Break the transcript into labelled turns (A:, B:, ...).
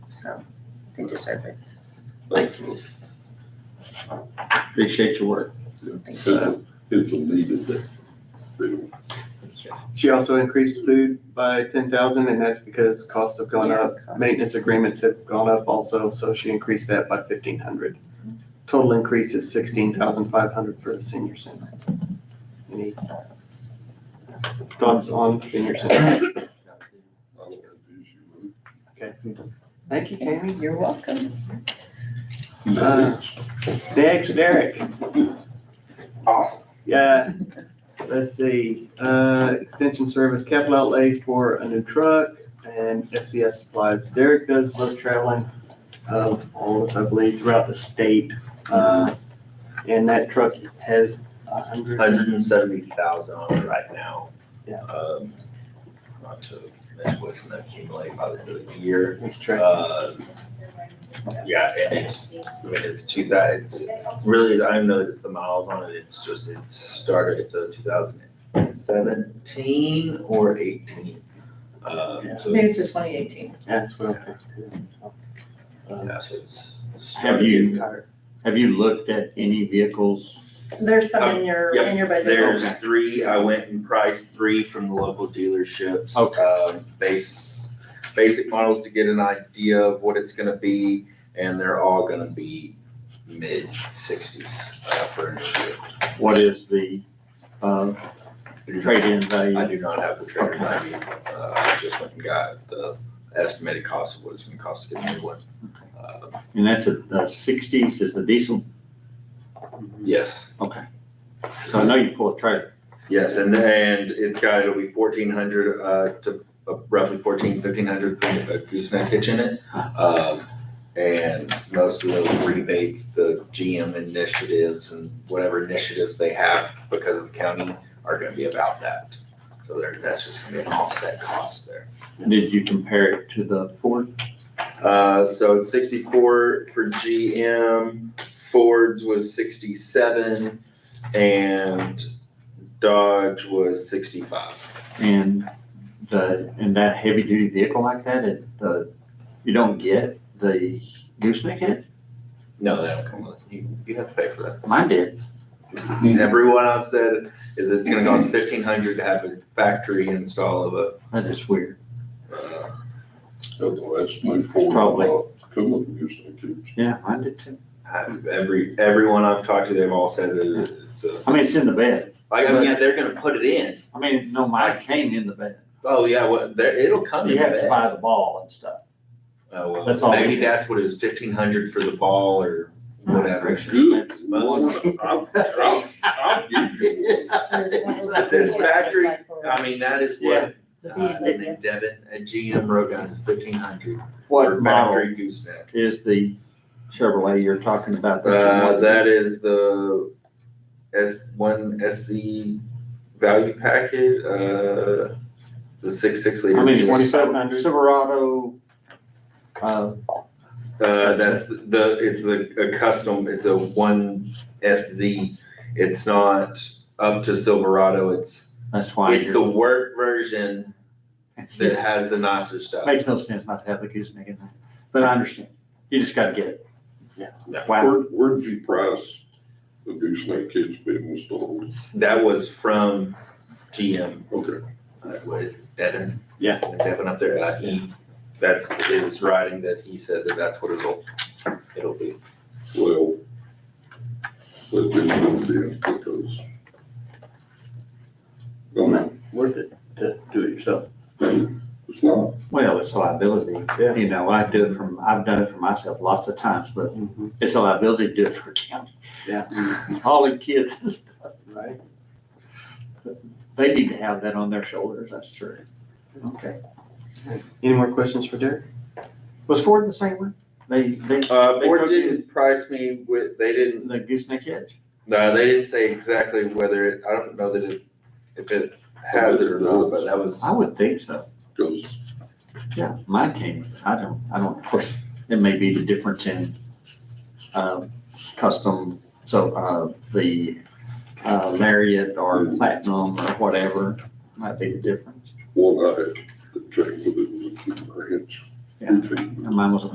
A: so they deserve it.
B: Thanks. Appreciate your work.
C: It's a, it's a needed that they don't.
D: She also increased food by ten thousand, and that's because costs have gone up. Maintenance agreements have gone up also, so she increased that by fifteen hundred. Total increase is sixteen thousand five hundred for the senior center. Any thoughts on senior center?
C: I don't have an issue with it.
D: Thank you, Tammy.
A: You're welcome.
D: Uh, Next, Derek.
E: Awesome.
D: Yeah, let's see, uh, extension service capital outlay for a new truck and SCS supplies. Derek does most traveling of all of us, I believe, throughout the state. Uh, and that truck has a hundred,
E: Hundred and seventy thousand on it right now.
D: Yeah.
E: Um, Not to, that's what's gonna accumulate by the end of the year.
D: each truck,
E: Uh, Yeah, and it's, I mean, it's two thou, it's really, I don't know, it's the miles on it, it's just, it started, it's a two thousand seventeen or eighteen. Um, so
F: Maybe it's the
E: it's,
F: twenty eighteen.
D: that's what I think too. uh,
E: yeah, so it's.
B: Have you-
D: Tired.
B: Have you looked at any vehicles?
F: There's some
E: Um,
F: in your, in your budget.
E: There's
B: Okay.
E: three, I went and priced three from the local dealerships.
B: Okay.
E: Um, Base, basic models to get an idea of what it's gonna be, and they're all gonna be mid sixties uh, for a new vehicle.
B: What is the, uh, trade-in
E: I
B: value?
E: do not have the trigger value, uh, I just went and got the estimated cost of what it's gonna cost to get a new one. Uh,
B: And that's a, a sixties is a diesel.
E: Yes.
B: Okay. I know you pull a trailer.
E: Yes, and and it's got, it'll be fourteen hundred, uh, to uh, roughly fourteen, fifteen hundred, uh, gooseneck hitch in it. Um, and most of the rebates, the GM initiatives and whatever initiatives they have because of the county are gonna be about that. So there, that's just gonna be an offset cost there.
B: Did you compare it to the Ford?
E: Uh, so it's sixty-four for GM, Ford's was sixty-seven, and Dodge was sixty-five.
B: And the, and that heavy-duty vehicle like that, it, the, you don't get the gooseneck head?
E: No, they don't come with it. You, you have to pay for that.
B: Mine did.
E: Everyone I've said is it's gonna cost fifteen hundred to have a factory install of
B: That is weird.
E: a, uh,
C: Otherwise, move forward.
B: Probably.
C: Come up against that kids.
B: Yeah, mine did too.
E: have- every, everyone I've talked to, they've all said that it's a,
B: I mean, it's in the bed.
E: like, I mean, yeah, they're gonna put it in.
B: I mean, no, mine came in the bed.
E: Oh, yeah, well, there, it'll come in
B: You have to
E: that.
B: buy the ball and stuff.
E: Oh,
B: That's
E: well,
B: all we
E: maybe
B: do.
E: that's what it was, fifteen hundred for the ball or whatever.
C: Good.
E: Most-
C: I'll, I'll, I'll give you one.
E: It says factory, I mean, that is what,
F: The
E: uh,
F: V,
E: in Devon, a GM Rogan is fifteen hundred
B: What
E: for
B: model
E: factory gooseneck.
B: is the Chevrolet you're talking about? that you're
E: Uh,
B: looking
E: that is the S one SC value packet, uh, the six, six
B: at?
E: liter.
B: I mean,
E: diesel.
B: twenty-seven hundred Silverado, uh,
E: Uh, that's the- the, it's a, a custom, it's a one SZ. It's not up to Silverado, it's,
B: that's why.
E: it's the work version that has the nicer stuff.
B: Makes no sense not to have the gooseneck in there, but I understand. You just gotta get it.
D: Yeah.
B: Wow.
C: Where, where did you price the gooseneck kids being installed?
E: That was from GM,
C: Okay,
E: uh, with Devin.
D: Yeah.
E: Devin up there, uh, he, that's his writing that he said that that's what it'll, it'll be.
C: well, that didn't go in because. I mean,
D: worth it to do it yourself.
C: it's not,
B: Well, it's a liability.
D: Yeah.
B: You know, I do it from, I've done it for myself lots of times, but
D: Mm-hmm.
B: it's a liability to do it for county.
D: Yeah.
B: Hauling kids and stuff.
D: Right?
B: They need to have that on their shoulders, that's true. Okay.
D: Any more questions for Derek?
B: Was Ford the same one? They, they.
E: Uh,
B: they
E: Ford
B: took
E: didn't price me with, they didn't,
B: The gooseneck edge?
E: no, they didn't say exactly whether it, I don't know that it, if it has it or not, but that was,
B: I would think so.
C: because
B: Yeah, mine came, I don't, I don't, of course, it may be the difference in, um, custom, so, uh, the, uh, Lariat or Platinum or whatever might be the difference.
C: one I had that came with it was a two ranch.
B: Yeah. And mine was a